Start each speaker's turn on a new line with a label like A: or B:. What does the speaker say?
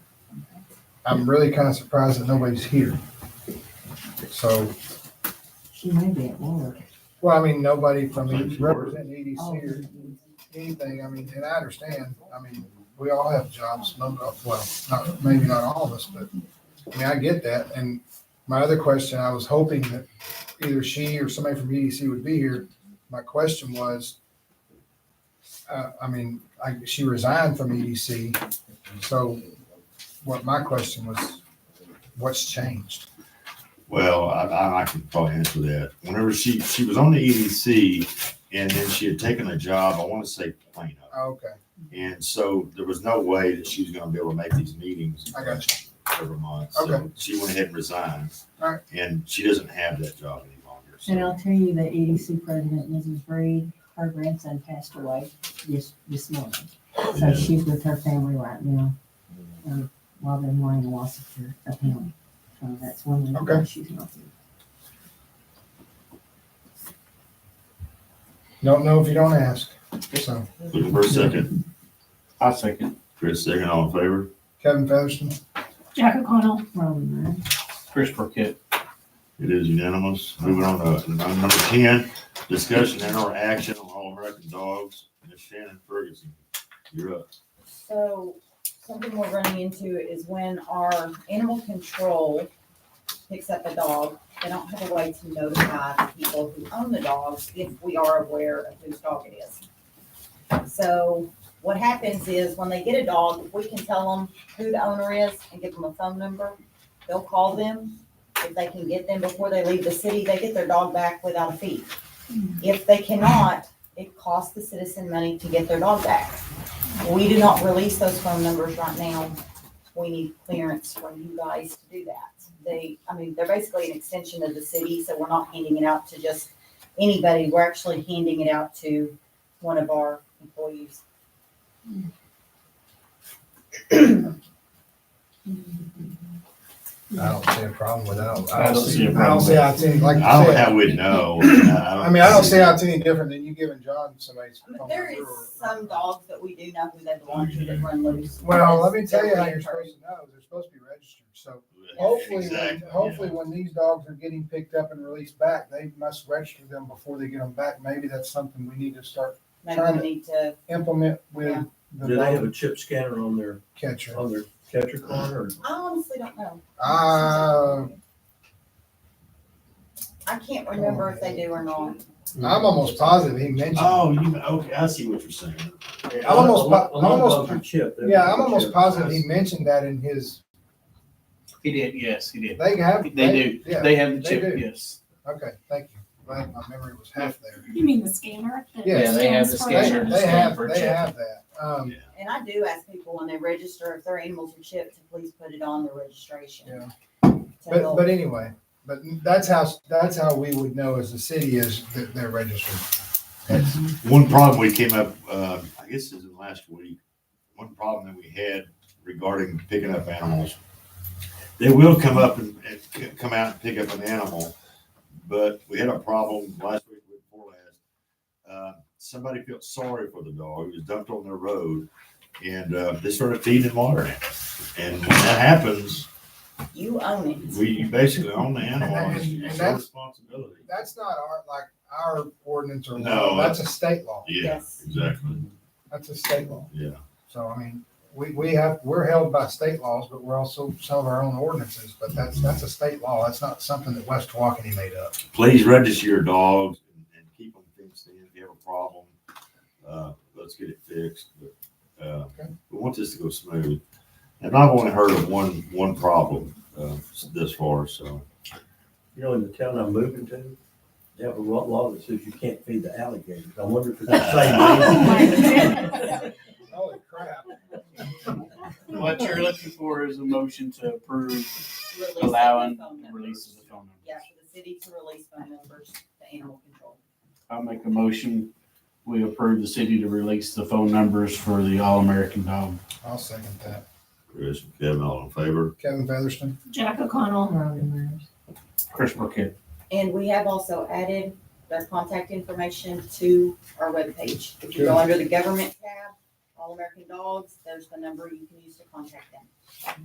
A: I'm really kind of surprised that nobody's here. So,
B: She may be at work.
A: well, I mean, nobody from E,
C: Thank
A: the-
C: you.
A: representing
B: Oh,
A: EDC or anything, I mean, and I understand, I mean, we all have jobs, no, no, well, not, maybe not all of us, but, I mean, I get that, and my other question, I was hoping that either she or somebody from EDC would be here, my question was, uh, I mean, I, she resigned from EDC, so what my question was, what's changed?
C: Well, I, I, I can probably answer that. Whenever she, she was on the EDC and then she had taken a job, I want to say Plano.
A: Okay,
C: And so there was no way that she was going to be able to make these meetings
A: I got
C: every month. So
A: Okay.
C: she went ahead and resigned.
A: All right.
C: And she doesn't have that job any longer.
B: And
C: So
B: I'll tell you, the EDC president, Mrs. Reed, her grandson passed away this, this morning. So
C: Yeah.
B: she's with her family right now, um, while they're mourning the loss of her, of him. So that's one reason why
A: Okay.
B: she's not here.
A: you. Don't know if you don't ask, so,
C: looking for a second.
D: I second.
C: Chris, second, all in favor?
A: Kevin Featherston,
E: Jack O'Connell,
B: Probably not.
D: Chris Burkett.
C: It is unanimous. Moving on to item number ten, discussion and or action on all American dogs. Ms. Shannon Ferguson, you're up.
F: So something we're running into is when our animal control picks up a dog, they don't have a way to notify the people who own the dogs if we are aware of whose dog it is. So what happens is when they get a dog, if we can tell them who the owner is and give them a phone number, they'll call them. If they can get them before they leave the city, they get their dog back without a fee. If they cannot, it costs the citizen money to get their dog back. We do not release those phone numbers right now. We need clearance from you guys to do that. They, I mean, they're basically an extension of the city, so we're not handing it out to just anybody. We're actually handing it out to one of our employees.
A: I don't see a problem with that.
D: I don't see a
A: I don't
D: problem
A: see
D: with
A: how it's any, like you
C: I don't
A: said.
C: have, we know.
A: I mean, I don't see how it's any different than you giving John somebody's. phone
F: There is
A: number or-
F: some dogs that we do know who they belong to that run loose.
A: Well, let me tell you how you're supposed to know. They're supposed to be registered. So hopefully, when,
C: Exactly, yeah.
A: hopefully when these dogs are getting picked up and released back, they must register them before they get them back. Maybe that's something we need to start
F: Maybe we need to,
A: implement with
F: Yeah.
A: the
G: Do they have
A: dog
G: a chip scanner on their,
A: catcher.
G: on their catcher corner? or-
F: I honestly don't know.
A: Uh,
F: I can't remember if they do or not.
A: I'm almost positive he mentioned.
C: Oh, you, okay, I see what you're saying.
G: I'm
A: almost po- I'm almost-
G: Your chip. they're-
A: Yeah, I'm almost
G: chip.
A: positive he mentioned that in his,
D: He did, yes, he did.
A: they have.
D: They do.
A: Yeah,
D: They have the
A: they
D: chip,
A: do.
D: yes.
A: okay, thank you. Glad my memory was half there.
E: you mean the scanner? that
A: Yeah,
D: Yeah, they have the
E: scans
A: They,
E: for-
D: scanner.
A: they have, they have that. Um,
F: And I do ask people when they register, if their animals are chipped, to please put it on their registration.
A: Yeah.
F: To
A: But,
F: help.
A: but anyway, but that's how, that's how we would know as a city is that they're registered. That's-
C: One problem we came up, uh, I guess this is in last week, one problem that we had regarding picking up animals. They will come up and, and c- come out and pick up an animal, but we had a problem last week, week before last. Uh, Somebody felt sorry for the dog, he was dumped on their road, and, uh, they started feeding him water. And when that happens,
F: You own it.
C: we basically own the animal, it's
A: And- and
C: it's our
A: that's-
C: responsibility.
A: That's not our, like, our ordinance or law,
C: No.
A: that's a state law,
C: Yeah,
F: Yes.
C: exactly,
A: that's a state law.
C: yeah.
A: So, I mean, we, we have, we're held by state laws, but we're also some of our own ordinances, but that's, that's a state law, that's not something that West Walkeny made up.
C: please register your dogs and, and keep them fenced in. If you have a problem, uh, let's get it fixed. But, uh,
A: Okay.
C: we want this to go smooth. And I've only heard of one, one problem, uh, this far, so.
G: You know, in the town I'm moving to, they have a law law that says you can't feed the alligators. I wonder if it's the
E: Oh, my
G: same. thing.
E: goodness.
A: Holy crap.
D: What you're looking for is a motion to approve
F: Release of the
D: allowing
F: phone
D: the
F: numbers.
D: release of the phone
F: Yeah,
D: numbers.
F: for the city to release phone numbers to animal control.
D: I'll make a motion. We approve the city to release the phone numbers for the All-American Dog.
A: I'll second that.
C: Chris and Kevin, all in favor?
A: Kevin Featherston?
E: Jack O'Connell,
B: Probably not.
D: Chris Burkett.
F: And we have also added their contact information to our webpage. If you go under the government tab, All American Dogs, there's the number you can use to contact them.